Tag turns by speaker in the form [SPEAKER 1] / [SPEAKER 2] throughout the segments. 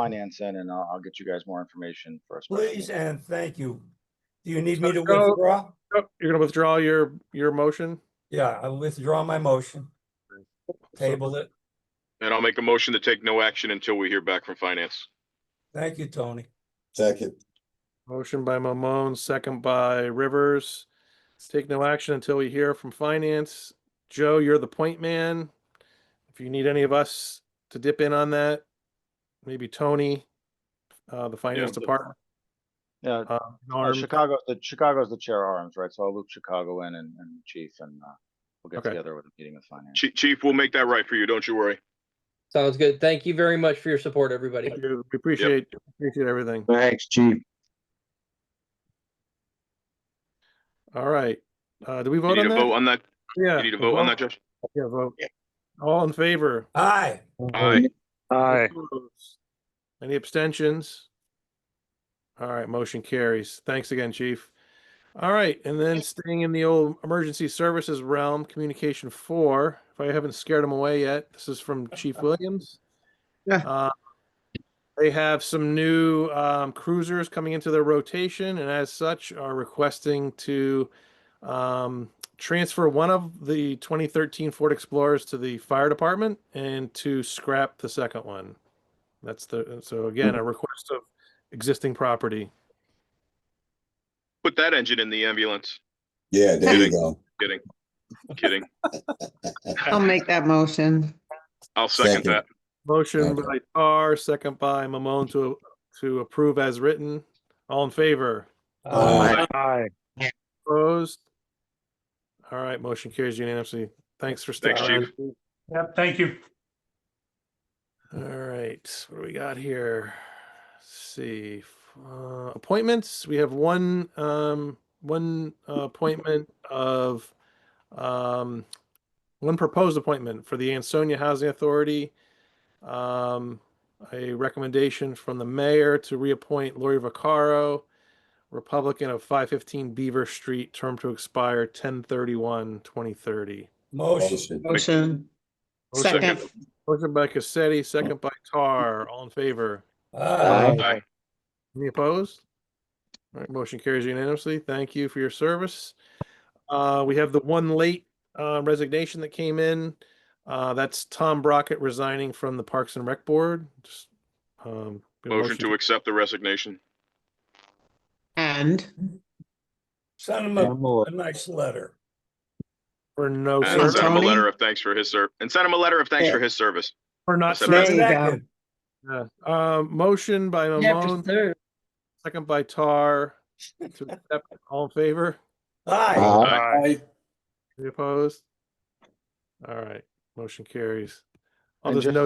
[SPEAKER 1] finance in and I'll, I'll get you guys more information for us.
[SPEAKER 2] Please and thank you. Do you need me to
[SPEAKER 3] Go.
[SPEAKER 2] withdraw?
[SPEAKER 3] Oh, You're gonna withdraw your, your motion?
[SPEAKER 2] Yeah, I withdraw my motion. Table it.
[SPEAKER 4] And I'll make a motion to take no action until we hear back from finance.
[SPEAKER 2] Thank you, Tony.
[SPEAKER 5] Second,
[SPEAKER 3] Motion by Mamone, second by Rivers. Take no action until we hear from finance. Joe, you're the point man. If you need any of us to dip in on that, maybe Tony, uh, the finance
[SPEAKER 4] but-
[SPEAKER 3] department.
[SPEAKER 1] Yeah,
[SPEAKER 3] uh,
[SPEAKER 1] uh,
[SPEAKER 3] Norm.
[SPEAKER 1] Chicago, the Chicago's the chair arms, right? So I'll loop Chicago in and, and chief and, uh, we'll get
[SPEAKER 3] Okay.
[SPEAKER 1] together with a meeting with finance.
[SPEAKER 4] Chief, Chief, we'll make that right for you. Don't you worry.
[SPEAKER 6] Sounds good. Thank you very much for your support, everybody.
[SPEAKER 3] Thank you. We appreciate, appreciate everything.
[SPEAKER 5] thanks, chief.
[SPEAKER 3] All right. Uh, do we
[SPEAKER 4] You
[SPEAKER 3] vote
[SPEAKER 4] need
[SPEAKER 3] on
[SPEAKER 4] a vote
[SPEAKER 3] that?
[SPEAKER 4] on that?
[SPEAKER 3] Yeah.
[SPEAKER 4] You need a vote on that, Judge?
[SPEAKER 3] Yeah, vote. All in favor?
[SPEAKER 2] Aye.
[SPEAKER 4] Aye.
[SPEAKER 7] Aye.
[SPEAKER 3] Opposed? Any abstentions? All right, motion carries. Thanks again, chief. All right, and then staying in the old emergency services realm, communication four, if I haven't scared them away yet, this is from Chief Williams.
[SPEAKER 7] Yeah.
[SPEAKER 3] Uh, They have some new um, cruisers coming into their rotation and as such are requesting to um, transfer one of the 2013 Ford Explorers to the fire department and to scrap the second one. That's the, so again, a request of existing property.
[SPEAKER 4] Put that engine in the ambulance.
[SPEAKER 5] Yeah, there you go.
[SPEAKER 4] Kidding. Kidding.
[SPEAKER 8] I'll make that motion.
[SPEAKER 4] I'll second
[SPEAKER 5] Second.
[SPEAKER 4] that.
[SPEAKER 3] Motion
[SPEAKER 5] Okay.
[SPEAKER 3] by Tar, second by Mamone to, to approve as written. All in favor?
[SPEAKER 2] Aye.
[SPEAKER 7] Aye.
[SPEAKER 3] Opposed? All right, motion carries unanimously. Thanks for
[SPEAKER 4] Thanks,
[SPEAKER 3] stopping.
[SPEAKER 4] Chief.
[SPEAKER 7] Yep, thank you.
[SPEAKER 3] All right, what do we got here? Let's see, uh, appointments. We have one, um, one uh, appointment of, um, one proposed appointment for the Ansonia Housing Authority. Um, a recommendation from the mayor to reappoint Lori Vaccaro, Republican of five fifteen Beaver Street, term to expire 1031-2030.
[SPEAKER 2] Motion.
[SPEAKER 5] Motion.
[SPEAKER 8] Motion.
[SPEAKER 4] Oh, second.
[SPEAKER 8] Second.
[SPEAKER 3] Motion by Cassetti, second by Tar. All in favor? Uh,
[SPEAKER 2] Aye.
[SPEAKER 4] Aye.
[SPEAKER 3] Any opposed? All right, motion carries unanimously. Thank you for your service. Uh, we have the one late uh, resignation that came in. Uh, that's Tom Brockett resigning from the Parks and Rec Board. Just, um, get a
[SPEAKER 4] Motion to accept the resignation.
[SPEAKER 8] And
[SPEAKER 2] Send him a, a nice letter.
[SPEAKER 3] For no,
[SPEAKER 4] And
[SPEAKER 3] ser-
[SPEAKER 8] Sir
[SPEAKER 4] send him a
[SPEAKER 8] Tony?
[SPEAKER 4] letter of thanks for his serv, and send him a letter of thanks
[SPEAKER 8] Yeah.
[SPEAKER 4] for his service.
[SPEAKER 3] for not
[SPEAKER 4] There you
[SPEAKER 3] serving.
[SPEAKER 8] go.
[SPEAKER 2] Second.
[SPEAKER 3] Uh, motion by Mamone,
[SPEAKER 6] sir.
[SPEAKER 3] second by Tar. To accept, all in favor?
[SPEAKER 2] Aye.
[SPEAKER 5] Aye.
[SPEAKER 3] Any opposed? All right, motion carries. Oh,
[SPEAKER 1] And
[SPEAKER 3] there's
[SPEAKER 1] just-
[SPEAKER 3] no,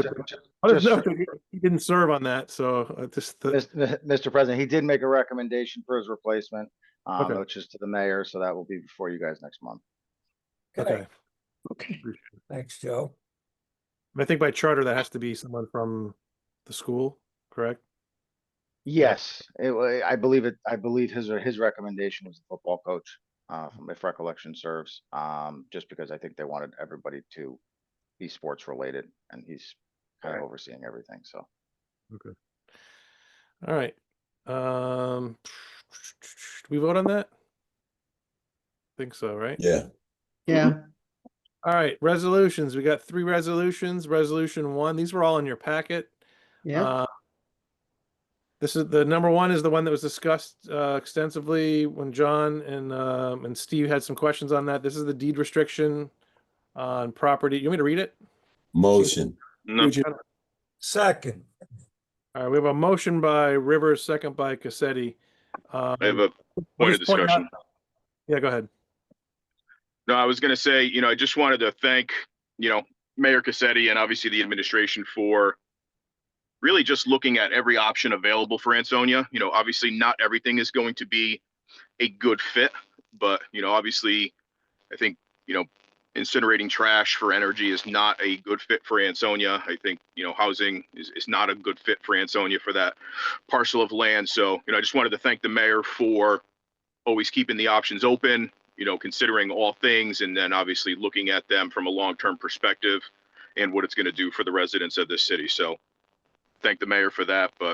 [SPEAKER 3] oh, there's
[SPEAKER 1] just-
[SPEAKER 3] no, he didn't serve on that, so uh, just, the-
[SPEAKER 1] Mr. Mr. President, he did make a recommendation for his replacement, um,
[SPEAKER 3] Okay.
[SPEAKER 1] which is to the mayor, so that will be before you guys next month.
[SPEAKER 3] okay.
[SPEAKER 8] okay,
[SPEAKER 2] Thanks, Joe.
[SPEAKER 3] I think by charter, that has to be someone from the school, correct?
[SPEAKER 1] Yes, it, wa- I believe it, I believe his, uh, his recommendation was the football coach, uh, from- if recollection serves. Um, just because I think they wanted everybody to be sports related and he's kind of overseeing everything, so.
[SPEAKER 3] All right. Um, do we vote on that? Think so, right?
[SPEAKER 5] Yeah,
[SPEAKER 8] yeah,
[SPEAKER 3] All right, resolutions. We got three resolutions. Resolution one, these were all in your packet.
[SPEAKER 8] yeah.
[SPEAKER 3] Uh, This is, the number one is the one that was discussed uh, extensively when John and, um, and Steve had some questions on that. This is the deed restriction on property. You want me to read it?
[SPEAKER 5] motion.
[SPEAKER 4] No,
[SPEAKER 2] Second.
[SPEAKER 3] All right, we have a motion by Rivers, second by Cassetti. Um,
[SPEAKER 4] I have a
[SPEAKER 3] I'll
[SPEAKER 4] point of
[SPEAKER 3] just point out-
[SPEAKER 4] discussion.
[SPEAKER 3] Yeah, go ahead.
[SPEAKER 4] No, I was gonna say, you know, I just wanted to thank, you know, Mayor Cassetti and obviously the administration for really just looking at every option available for Ansonia. You know, obviously not everything is going to be a good fit, but, you know, obviously, I think, you know, incinerating trash for energy is not a good fit for Ansonia. I think, you know, housing is, is not a good fit for Ansonia for that parcel of land. So, you know, I just wanted to thank the mayor for always keeping the options open, you know, considering all things and then obviously looking at them from a long-term perspective and what it's going to do for the residents of this city. So thank the mayor for that, but